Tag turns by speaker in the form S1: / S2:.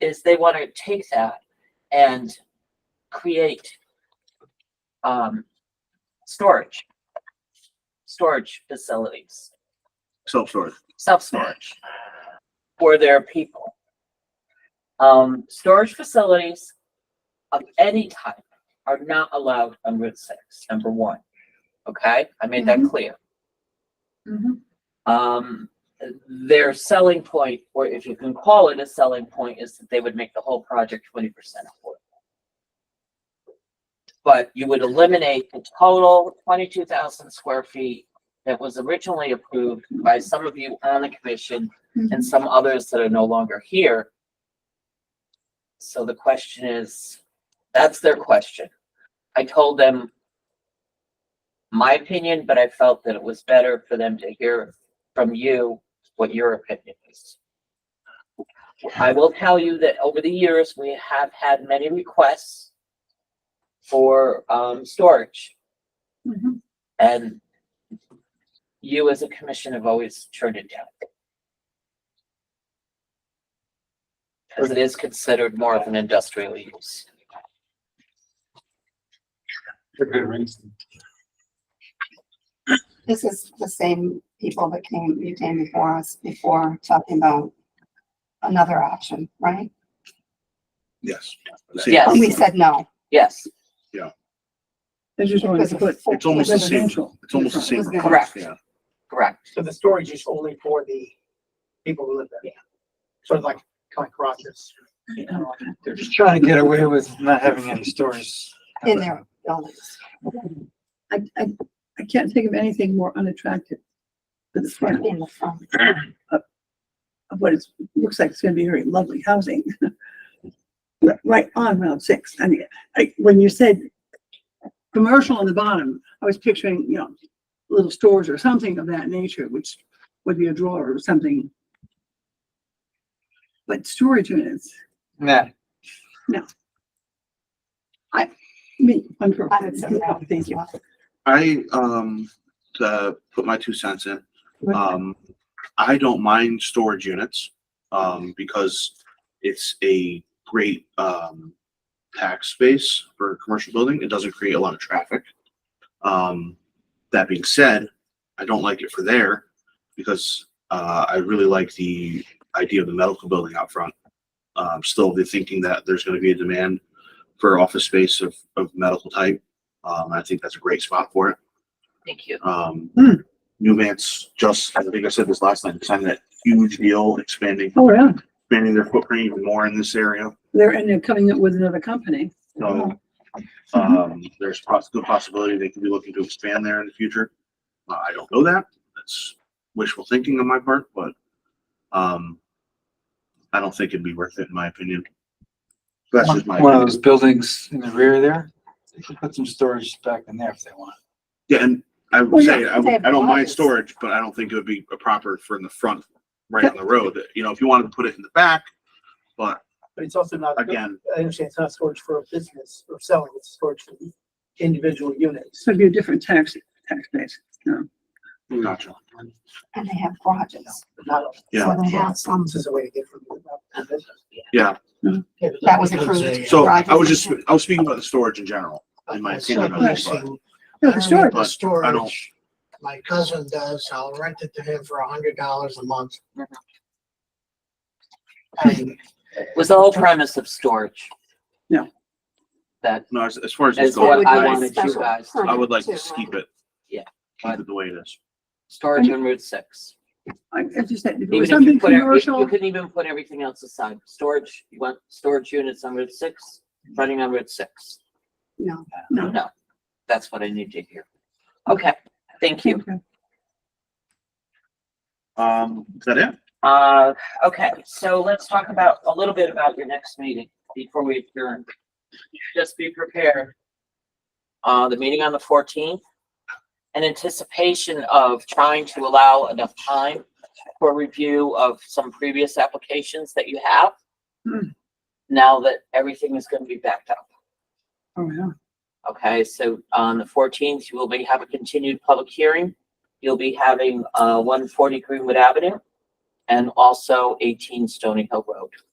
S1: is they want to take that and create um, storage, storage facilities,
S2: self-storage.
S1: self-storage for their people. Um, storage facilities of any type are not allowed on Route Six, number one. Okay, I made that clear.
S2: Mm-hmm,
S3: Mhm.
S1: Um, their selling point, or if you can call it a selling point, is that they would make the whole project twenty percent affordable. But you would eliminate the total twenty-two thousand square feet that was originally approved by some of you on the commission
S2: mm-hmm,
S3: Mm-hmm.
S1: and some others that are no longer here. So the question is, that's their question. I told them my opinion, but I felt that it was better for them to hear from you what your opinion is. I will tell you that over the years, we have had many requests for, um, storage
S2: mm-hmm.
S3: Mhm.
S1: and you as a commission have always turned it down. Because it is considered more of an industrial use.
S4: For good reason.
S3: This is the same people that came, you came before us before talking about another option, right?
S2: Yes.
S1: Yes.
S3: And we said no.
S1: Yes,
S5: They just wanted to put
S2: It's almost the same,
S5: residential.
S2: it's almost the same. request,
S1: Correct.
S2: Yeah,
S1: correct.
S4: So the storage is only for the people who live there. Sort of like, kind of crosses. you know,
S6: They're just trying to get away with not having any stores.
S3: in their buildings.
S5: I, I, I can't think of anything more unattractive to the front
S3: In the front.
S5: of what it's, looks like it's gonna be very lovely housing. Ri- Right on Route Six. I mean, I, when you said commercial on the bottom, I was picturing, you know, little stores or something of that nature, which would be a drawer or something. But storage units,
S6: Nah,
S5: I mean, wonderful.
S3: I would say no.
S5: Thank you.
S2: I, um, to put my two cents in, um, I don't mind storage units, um, because it's a great, um, tax space for a commercial building. It doesn't create a lot of traffic. Um, that being said, I don't like it for there because, uh, I really like the idea of the medical building out front. Um, still the thinking that there's gonna be a demand for office space of, of medical type. Um, I think that's a great spot for it.
S1: Thank you.
S2: Um,
S5: Hmm.
S2: Newman's just, I think I said this last time, signed that huge deal expanding,
S5: Oh, yeah.
S2: expanding their footprint even more in this area.
S5: They're, and they're coming up with another company.
S2: So, um, there's poss- good possibility they could be looking to expand there in the future. Uh, I don't know that. That's wishful thinking on my part, but, um, I don't think it'd be worth it in my opinion. That's just my,
S6: one of
S2: opinion.
S6: those buildings in the rear there, they could put some storage back in there if they want.
S2: yeah, and I would
S3: Well,
S2: say,
S3: yeah,
S2: I,
S3: they have
S2: I don't mind
S3: closets.
S2: storage, but I don't think it would be proper for in the front, right on the road. You know, if you wanted to put it in the back, but
S4: But it's also not, I
S2: again,
S4: understand it's not storage for a business or selling, it's storage for individual units.
S5: So it'd be a different tax, tax base. No.
S2: gotcha.
S3: And they have garages.
S4: Not a-
S2: Yeah.
S3: So they have some,
S4: This is a way to get from. the business.
S2: Yeah.
S5: Mhm.
S4: Yeah, but-
S3: that was approved.
S2: So I was just, I was speaking about the storage in general. in my opinion, I'm just like-
S5: No,
S4: Um,
S5: the storage,
S2: But I don't-
S7: Storage, my cousin does, I'll rent it to him for a hundred dollars a month.
S2: Mm-hmm.
S7: And
S1: Was the whole premise of storage?
S5: No.
S1: That
S2: No, as, as far as
S1: is
S2: it's
S1: what
S2: going,
S1: I
S3: It would be
S2: I,
S1: wanted you
S3: special
S1: guys, to-
S3: permit
S2: I would like
S3: too,
S2: to keep
S3: right?
S2: it.
S1: Yeah.
S2: Keep it the way it is.
S1: storage on Route Six.
S5: I I just said, if it
S1: Even
S5: was
S1: if you
S5: something
S1: put, every- you
S5: commercial,
S1: couldn't even put everything else aside. Storage, you want storage units on Route Six, running on Route Six.
S3: No.
S5: no.
S1: No, that's what I need to hear. Okay, thank you.
S5: Okay.
S2: Um, is that it?
S1: Uh, okay, so let's talk about, a little bit about your next meeting before we adjourn. Just be prepared. Uh, the meeting on the fourteenth, in anticipation of trying to allow enough time for review of some previous applications that you have.
S5: Hmm.
S1: Now that everything is gonna be backed up.
S5: Oh, yeah.
S1: Okay, so on the fourteenth, you will be, have a continued public hearing. You'll be having, uh, one forty Greenwood Avenue and also eighteen Stony Hill Road.